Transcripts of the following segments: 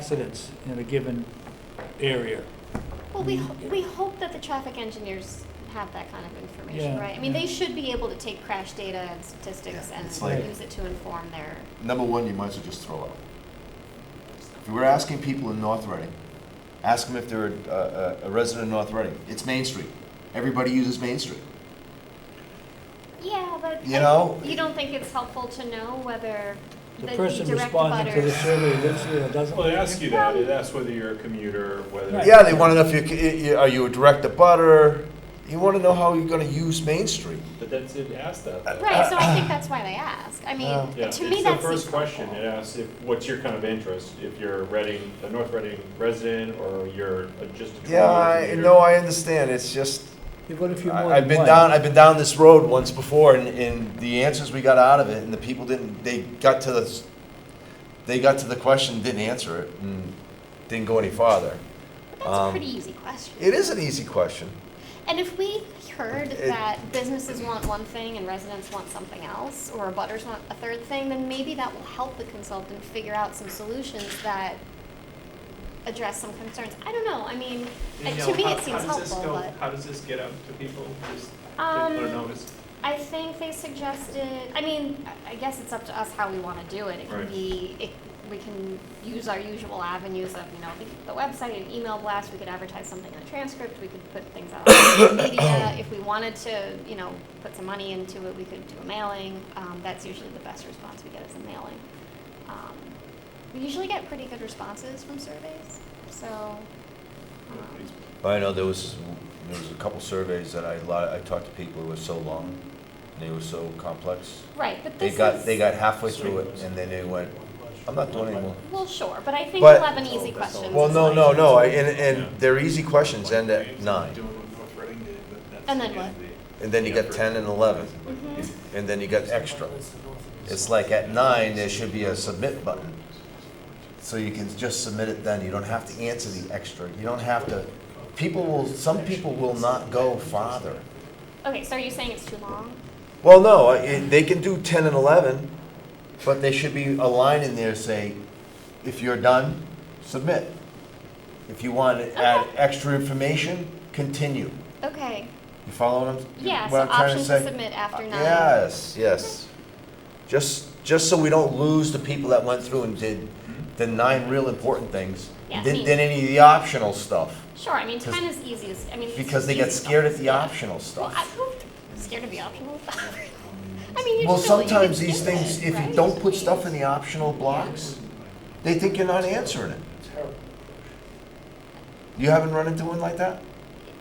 accidents in a given area. Well, Mm. we, ho- we hope that the traffic engineers have that kind of information, Yeah, right? I mean, they yeah. should be able to take crash data and statistics Yeah, and it's like- use it to inform their, Number one, you might as well just throw out. If you were asking people in North Reading, ask them if they're a, a, a resident of North Reading. It's Main Street. Everybody uses Main Street. yeah, but. You I- know? You don't think it's helpful to know whether The the person direct responding to the butters? survey lives here or doesn't. Well, they live ask here. you that, they ask whether you're a commuter, whether. Right. Yeah, they want to know if you, c- i- i- are you a direct abutter? You want to know how you're going to use Main Street. But that's, it asked that. though. Right, so I think that's why they ask. I Yeah. mean, Yeah, it's to me, the that's. first question, it asks if, what's your kind of interest, if you're Reading, a North Reading resident, or you're a- just a. Yeah, I, commuter. no, I understand. It's just You've got a few more I, I've than been one. down. I've been down this road once before, and, and the answers we got out of it, and the people didn't. They got to the. s- They got to the question, didn't answer it, and didn't go any farther. That's a um, pretty easy question. It is an easy question. And if we heard It- that businesses want one thing and residents want something else, or butters want a third thing, then maybe that will help the consultant figure out some solutions that address some concerns. I don't know, I mean, uh, You know, to me, how- it seems How does this helpful, go, but. how does this get out to people, just Um, people notice? I think they suggested, I mean, I- I guess it's up to us how we want to do it. It can Right. be, it, we can use our usual avenues of, you know, the- the website, an email blast, we could advertise something in a transcript, we could put things out on social media. If we wanted to, you know, put some money into it, we could do a mailing. Um, that's usually the best response we get is a mailing. Um, We usually get pretty good responses from surveys, so, I know there was, there was a couple surveys that I, li- I talked to people who were so long, and they were so complex. um, right, but They this is. got, they got halfway through it, and then they went, I'm not doing anymore. Well, sure, but I think But- we'll have an easy question. Well, no, no, no, I- and, and they're easy questions, end Like, at nine, Doing what North Reading did, but that's. And then again, what? the- and then you got ten and eleven, Mhm. and then you got extra. It's like at nine, there should be a submit button, so you can just submit it then, you don't have to answer the extra, you don't have to, people will, some people will not go farther. Okay, so are you saying it's too long? Well, no, I- it- they can do 10 and 11, but there should be a line in there say, if you're done, submit. If you want to add Okay. extra information, continue. Okay, You follow what I'm, yeah, so what I'm trying option to to say? submit after nine. Yes, yes. Just, just so we don't lose the people that went through and did the nine real important things, Yeah, didn't me. did any of the optional stuff, Sure, I mean, 'Cause- ten is easiest, I mean. it's because they got easy scared at stuff. the Yeah. optional Well, stuff. I, who- scared of the optional stuff? I mean, you Well, just know what you sometimes can these do things, with, if you right? don't put stuff in the optional blocks, they think you're not answering it. You haven't run into one like that?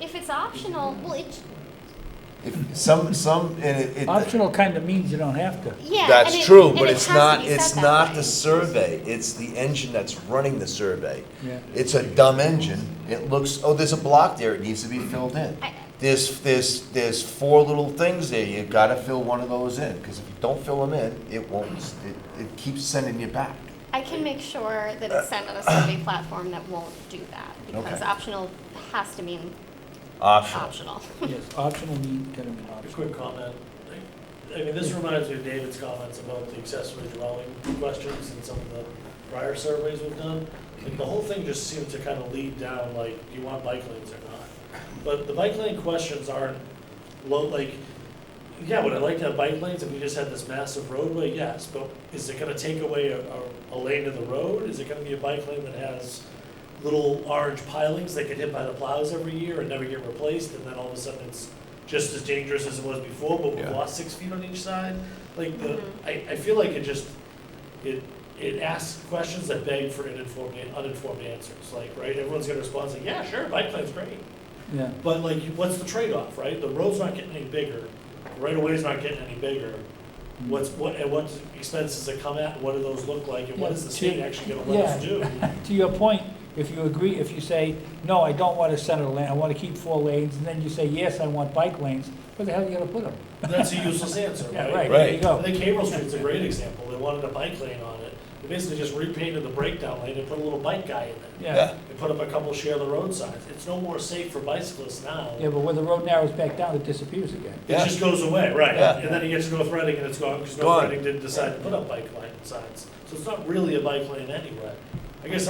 If it's optional, well, it, If some, some, and it. it- Optional kind of means you don't have to. yeah. and That's it- true, and but it it's has to not, be set it's that not way. the survey, it's the engine that's running the survey. Yeah. It's a dumb engine, it looks, oh, there's a block there, it needs to be filled in. I- There's, there's, there's four little things there, you gotta fill one of those in, because if you don't fill them in, it won't, it, it keeps sending you back. I can make sure that it's sent on a survey platform that won't do that, because Okay. optional has to mean Optional. optional. Yes, optional means, kind of mean A optional. quick comment. I- I mean, this reminds me of David's comments about the accessory dwelling questions and some of the prior surveys we've done. Like, the whole thing just seemed to kind of lead down, like, do you want bike lanes or not? But the bike lane questions aren't low, like, yeah, would I like to have bike lanes if we just had this massive roadway? Yes, but is it gonna take away a, a- a lane of the road? Is it gonna be a bike lane that has little orange pilings that get hit by the plows every year and never get replaced, and then all of a sudden it's just as dangerous as it was before, but we've Yeah. lost six feet on each side? Like, the, Mhm. I, I feel like it just, it, it asks questions that beg for uninformed, uninformed answers, like, right? Everyone's gonna respond saying, yeah, sure, bike lane's great. Yeah. But like, what's the trade-off, right? The road's not getting any bigger, the right of way's not getting any bigger. What's, what, and what expenses that come at, what do those look like, and what is the state actually gonna let us do? To your point, if you agree, if you say, no, I don't want a center lane, I want to keep four lanes, and then you say, yes, I want bike lanes, where the hell are you going to put them? That's a useless answer, Yeah, right? right, there you Right. go. I think Haverhill Street's a great example, they wanted a bike lane on it, they basically just repainted the breakdown lane and put a little bike guy in there. Yeah, They put up a couple share the road signs, it's no more safe for bicyclists now. yeah, but when the road narrows back down, it disappears again. It just goes away, right? Yeah. And then you get to North Reading and it's gone because Gone. North Reading didn't decide to put up bike lane signs. So it's not really a bike lane anyway. I guess